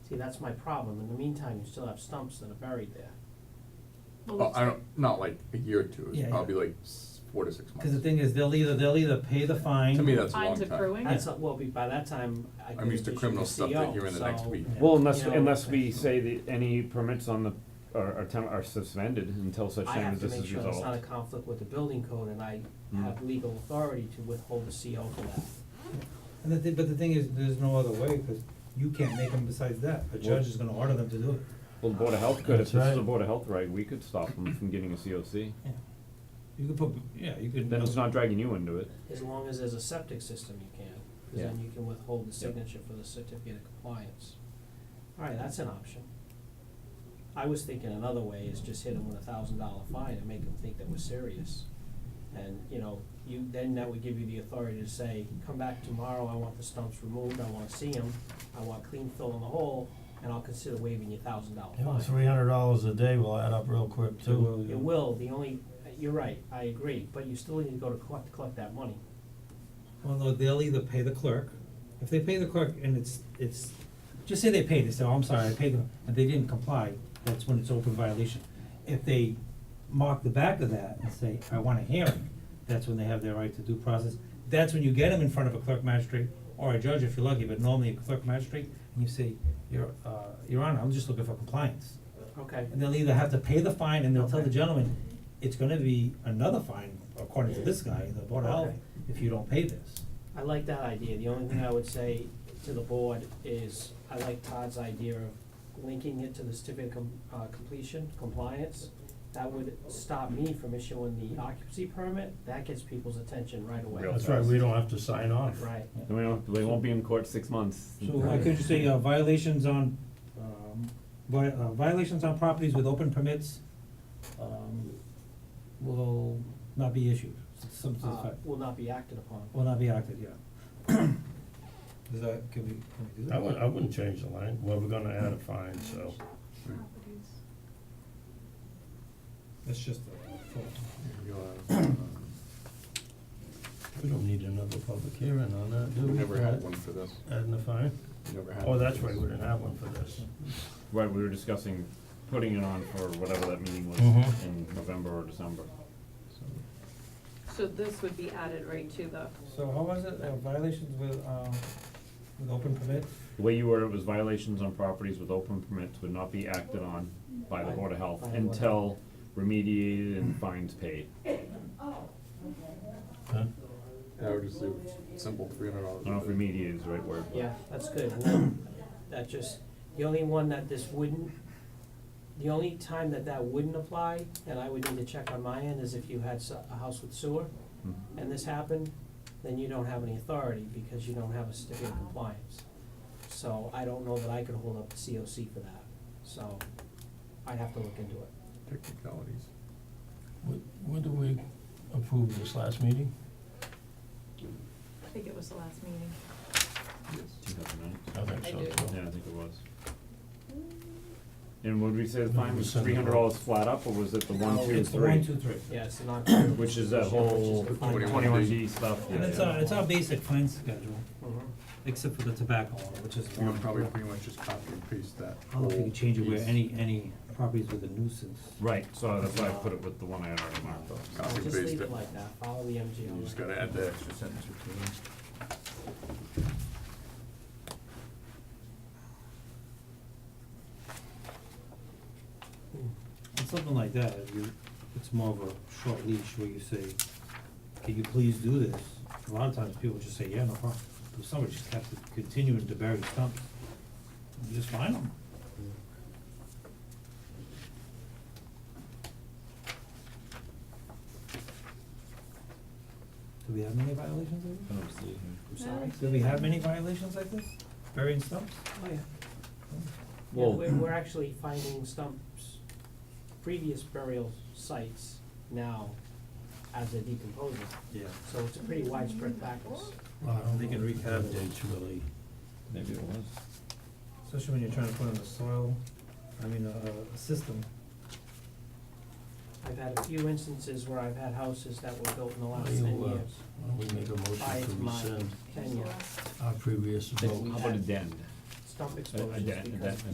See, that's my problem. In the meantime, you still have stumps that are buried there. Oh, I don't, not like a year or two, Yeah, it's yeah. probably like s- four to six months. Cause the thing is, they'll either, they'll either pay the fine. To me, that's a long time. Fines accruing? That's, not- well, be- by that time, I I'm could used to issue criminal the stuff that CO, you're in the next so- week. Well, unless, You know, unless we it's- say that any permits on the, are, are tem- are suspended until such I time have as to this make is sure resolved. it's not a conflict with the building code, and I Mm. have legal authority to withhold a CO for that. And the thing, but the thing is, there's no other way, cause you can't make them besides that, a judge is gonna order them to do it. Well, the Board of Health could, if That's this is a right. Board of Health right, we could stop them from getting a COC. Yeah. You could put, yeah, you could. Then it's not dragging you into it. As long as there's a septic system, you can, 'cause Yeah. then you can withhold the signature for the certificate of compliance. All right, that's an option. I was thinking another way is just hit them with a thousand dollar fine and make them think that we're serious. And, you know, you, then that would give you the authority to say, come back tomorrow, I want the stumps removed, I wanna see them, I want clean fill in the hole, and I'll consider waiving your thousand dollar fine. Three hundred dollars a day will add up real quick It will, too. yeah. It will, the only, you're right, I agree, but you still need to go to collect, collect that money. Well, no, they'll either pay the clerk, if they pay the clerk and it's, it's, just say they paid, they say, oh, I'm sorry, I paid them, and they didn't comply, that's when it's open violation. If they mark the back of that and say, I want a hearing, that's when they have their right to due process. That's when you get them in front of a clerk magistrate or a judge if you're lucky, but normally a clerk magistrate, and you say, your, uh, your honor, I'm just looking for compliance. Okay. And they'll either have to pay the fine and they'll tell the Okay. gentleman, it's gonna be another fine according to this guy, the board of health, Okay. if you don't pay this. I like that idea. The only thing I would say to the board is, I like Todd's idea of linking it to the certificate of com- uh, completion, compliance. That would stop me from issuing the occupancy permit. That gets people's attention right away. Real. That's right, we don't have to sign off. Right. Uh, Then we don't, they won't be in court six months. So I could just say uh, violations on, um, vi- uh, violations on properties with open permits, um, will not be issued, some sort of Uh, fact, will not be acted upon. will not be acted, yeah. Does that, can we, can we do that? I wouldn't, I wouldn't change the line, well, we're gonna add a fine, so. That's just a thought. uh, um, We don't need another public hearing on that, do We we? never had one for this, Adding a fine? we never had. Oh, one for that's right, this. we didn't have one for this. Right, we were discussing putting it on for whatever that meeting was Mm-hmm. Mhm. in November or December. So this would be added right to the, So how was it, uh, violations with, um, with open permit? The way you were, it was violations on properties with open permits would not be acted on by the Board of Health By the Board of until remediated and fines paid. Huh? Yeah, I would just leave it simple, three hundred dollars. I don't know if remediated is the right word, but. Yeah, that's good. And then That just, the only one that this wouldn't, the only time that that wouldn't apply, and I would need to check on my end, is if you had s- a house with sewer. Mhm. and this happened, then you don't have any authority because you don't have a certificate of compliance. So I don't know that I could hold up the COC for that, so I'd have to look into it. Technicalities. When, when did we approve this last meeting? I think it was the last meeting. Two thousand nine? I think so, I do. too. Yeah, I think it was. And would we say the fine was Percent three of hundred dollars flat up, or was it the one, No, two, It's the one, three? two, three. Yeah, it's not. Which is that whole E. twenty-one D stuff, yeah, And it's yeah. our, it's our basic fine schedule, Oh, except for the tobacco one, which is We one. would probably pretty much just copy and paste that. I don't know if you can change it where piece. any, any properties with a nuisance. Right, so that's why I put it with the one I had already marked up. Copy and Just paste leave it, it like that, follow the you just MGL. gotta add the extra sentence or two. And something like that, if you, it's more of a short leash where you say, can you please do this? A lot of times people just say, yeah, no problem, but somebody just has to continue to bury stumps, you just find them. Do we have many violations like I this? don't see it here. I'm sorry. Do we have many violations like this, burying stumps? Oh, yeah. Yeah, Well- we're, we're actually finding stumps, previous burial sites now as they're decomposing. Yeah. So it's a pretty widespread practice. Well, I don't They can know. recap. Dates really. Maybe it was. Especially when you're trying to put in the soil, I mean, a, a system. I've had a few instances where I've had houses that were built in the last Well, you, ten uh, years, Why don't we make a motion Five to miles. rescind ten years. our previous vote? How about a dend? Stumps. dump exposures I- I- because. that-